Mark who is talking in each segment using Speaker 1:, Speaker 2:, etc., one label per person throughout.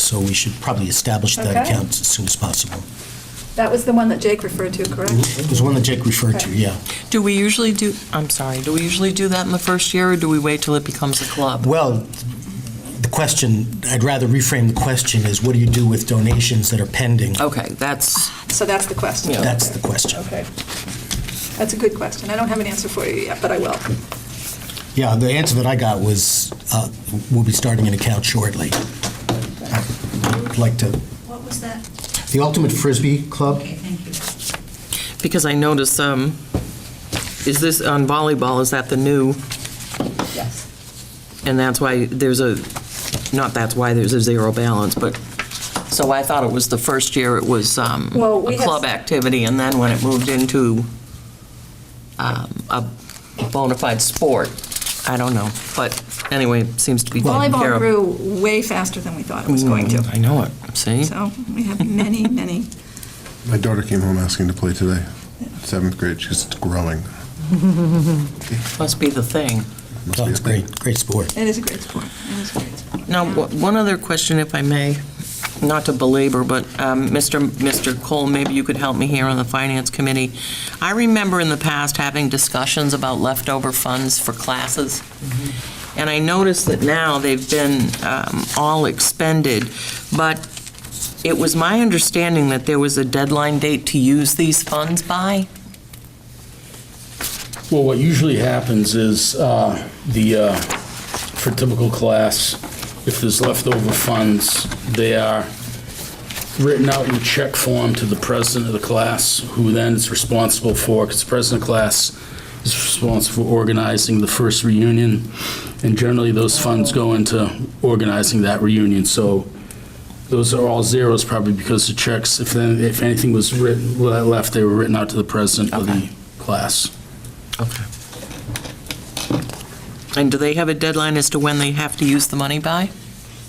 Speaker 1: so we should probably establish that
Speaker 2: Okay.
Speaker 1: account as soon as possible.
Speaker 2: That was the one that Jake referred to,
Speaker 3: Mm-hmm.
Speaker 2: correct?
Speaker 1: It was one that Jake referred to,
Speaker 2: Okay.
Speaker 1: yeah.
Speaker 3: Do we usually do, I'm sorry, do we usually do that in the first year, or do we wait till it becomes a club?
Speaker 1: Well, the question, I'd rather reframe the question is what do you do with donations that are pending?
Speaker 3: Okay, that's,
Speaker 2: So that's the question.
Speaker 3: Yeah.
Speaker 1: That's the question.
Speaker 2: Okay. That's a good question. I don't have an answer for you yet, but I will.
Speaker 1: Yeah, the answer that I got was, uh, we'll be starting an account shortly. I'd like to,
Speaker 4: What was that?
Speaker 1: the Ultimate Frisbee Club,
Speaker 4: Okay, thank you.
Speaker 3: because I noticed, um, is this, on volleyball, is that the new,
Speaker 2: Yes.
Speaker 3: and that's why there's a, not that's why there's a zero balance, but, so I thought it was the first year it was um,
Speaker 2: Well, we
Speaker 3: a
Speaker 2: have-
Speaker 3: club activity, and then when it moved into um, a bona fide sport, I don't know, but anyway, it seems to be taken care
Speaker 2: Volleyball
Speaker 3: of.
Speaker 2: grew way faster than we thought it was going
Speaker 3: Mm,
Speaker 2: to.
Speaker 3: I know it, see?
Speaker 2: So we have many, many.
Speaker 5: My daughter came home asking to play today, seventh grade. She's growing.
Speaker 3: Must be the thing.
Speaker 5: Must
Speaker 1: oh,
Speaker 5: be a
Speaker 1: it's
Speaker 5: thing.
Speaker 1: great, great sport.
Speaker 2: It is a great sport. It is a great sport.
Speaker 3: Now, wh- one other question, if I may, not to belabor, but um, Mr. M- Mr. Cole, maybe you could help me here on the Finance Committee. I remember in the past having discussions about leftover funds for classes, and I noticed that now they've been um, all expended, but it was my understanding that there was a deadline date to use these funds by?
Speaker 6: Well, what usually happens is uh, the, uh, for typical class, if there's leftover funds, they are written out in check form to the president of the class, who then is responsible for, because the president of class is responsible for organizing the first reunion, and generally those funds go into organizing that reunion. So those are all zeros probably because the checks, if then, if anything was written, le- left, they were written out to the president of the
Speaker 3: Okay.
Speaker 6: class.
Speaker 3: Okay. And do they have a deadline as to when they have to use the money by?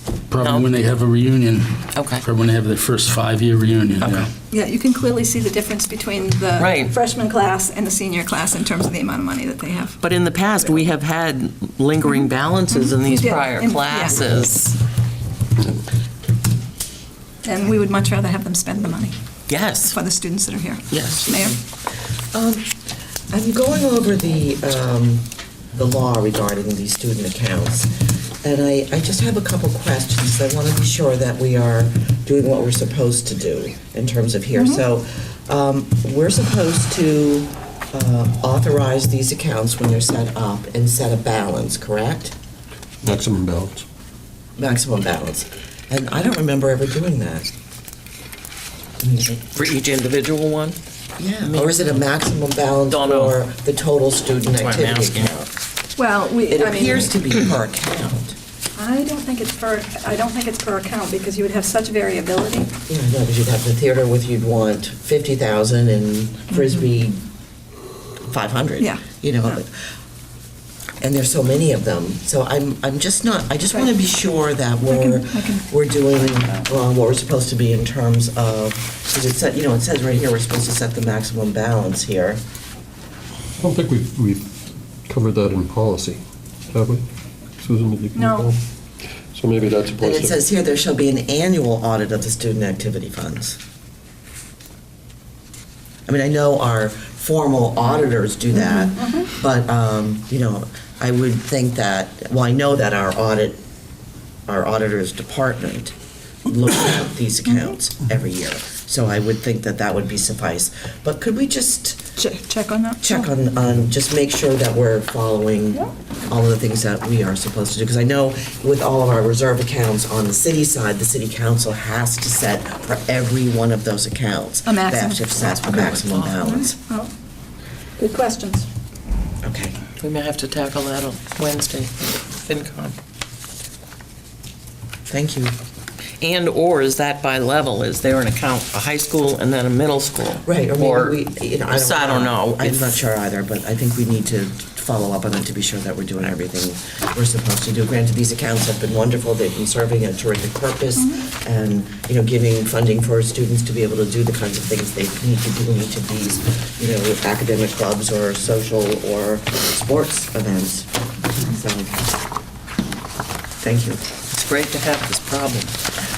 Speaker 3: No.
Speaker 6: Probably when they have a reunion.
Speaker 3: Okay.
Speaker 6: Probably when they have their first five-year reunion,
Speaker 3: Okay.
Speaker 6: yeah.
Speaker 2: Yeah, you can clearly see the difference between the
Speaker 3: Right.
Speaker 2: freshman class and the senior class in terms of the amount of money that they have.
Speaker 3: But in the past, we have had lingering balances in these
Speaker 2: We did,
Speaker 3: prior
Speaker 2: and- yeah.
Speaker 3: classes.
Speaker 2: And we would much rather have them spend the money
Speaker 3: Yes,
Speaker 2: for the students that are here.
Speaker 3: yes.
Speaker 2: Mayor?
Speaker 7: I'm going over the, um, the law regarding these student accounts, and I, I just have a couple questions. I want to be sure that we are doing what we're supposed to do in terms of
Speaker 3: Mm-hmm.
Speaker 7: here. So, um, we're supposed to uh, authorize these accounts when they're set up and set a balance, correct?
Speaker 5: Maximum balance.
Speaker 7: Maximum balance. And I don't remember ever doing that.
Speaker 3: For each individual one?
Speaker 7: Yeah. Or is it a maximum balance
Speaker 3: Don't know.
Speaker 7: for the total student
Speaker 3: That's why I'm
Speaker 7: activity
Speaker 3: asking.
Speaker 7: account?
Speaker 2: Well, we,
Speaker 7: It
Speaker 2: I mean,
Speaker 7: appears to be per account.
Speaker 2: I don't think it's per, I don't think it's per account because you would have such variability.
Speaker 7: Yeah, no, because you'd have the theater with, you'd want 50,000 and Frisbee 500.
Speaker 2: Mm-hmm. Yeah.
Speaker 7: You know,
Speaker 2: Yeah.
Speaker 7: but- and there's so many of them. So I'm, I'm just not, I just want to be sure that we're,
Speaker 2: I can-
Speaker 7: we're doing uh, what we're supposed to be in terms of, because it said, you know, it says right here, we're supposed to set the maximum balance here.
Speaker 8: I don't think we've, we've covered that in policy, have we? Susan, did you?
Speaker 2: No.
Speaker 8: recall? So maybe that's a
Speaker 7: And
Speaker 8: place
Speaker 7: it
Speaker 8: to,
Speaker 7: says here, there shall be an annual audit of the student activity funds. I mean, I know our formal auditors do that, but, um, you know, I would think that, well, I know that our audit, our auditors department looks at these accounts every year, so I would think that that would be suffice. But could we just
Speaker 2: Che- Check on that?
Speaker 7: check on, on, just make sure that we're following
Speaker 2: Yeah.
Speaker 7: all of the things that we are supposed to do, because I know with all of our reserve accounts on the city side, the city council has to set for every one of those accounts.
Speaker 2: A maximum.
Speaker 7: They have to set a maximum balance.
Speaker 2: Well, Good questions.
Speaker 7: Okay.
Speaker 3: We may have to tackle that on Wednesday, FinCom.
Speaker 7: Thank you.
Speaker 3: And/or is that by level? Is there an account, a high school and then a middle school?
Speaker 7: Right, or maybe we, you know, I don't.
Speaker 3: So I don't know.
Speaker 7: I'm
Speaker 3: if-
Speaker 7: not sure either, but I think we need to follow up on it to be sure that we're doing everything we're supposed to do. Granted, these accounts have been wonderful, they've been serving a terrific purpose, and, you know, giving funding for students to be able to do the kinds of things they need to do in each of these, you know, academic clubs or social or sports events. So, thank you.
Speaker 3: It's great to have this problem.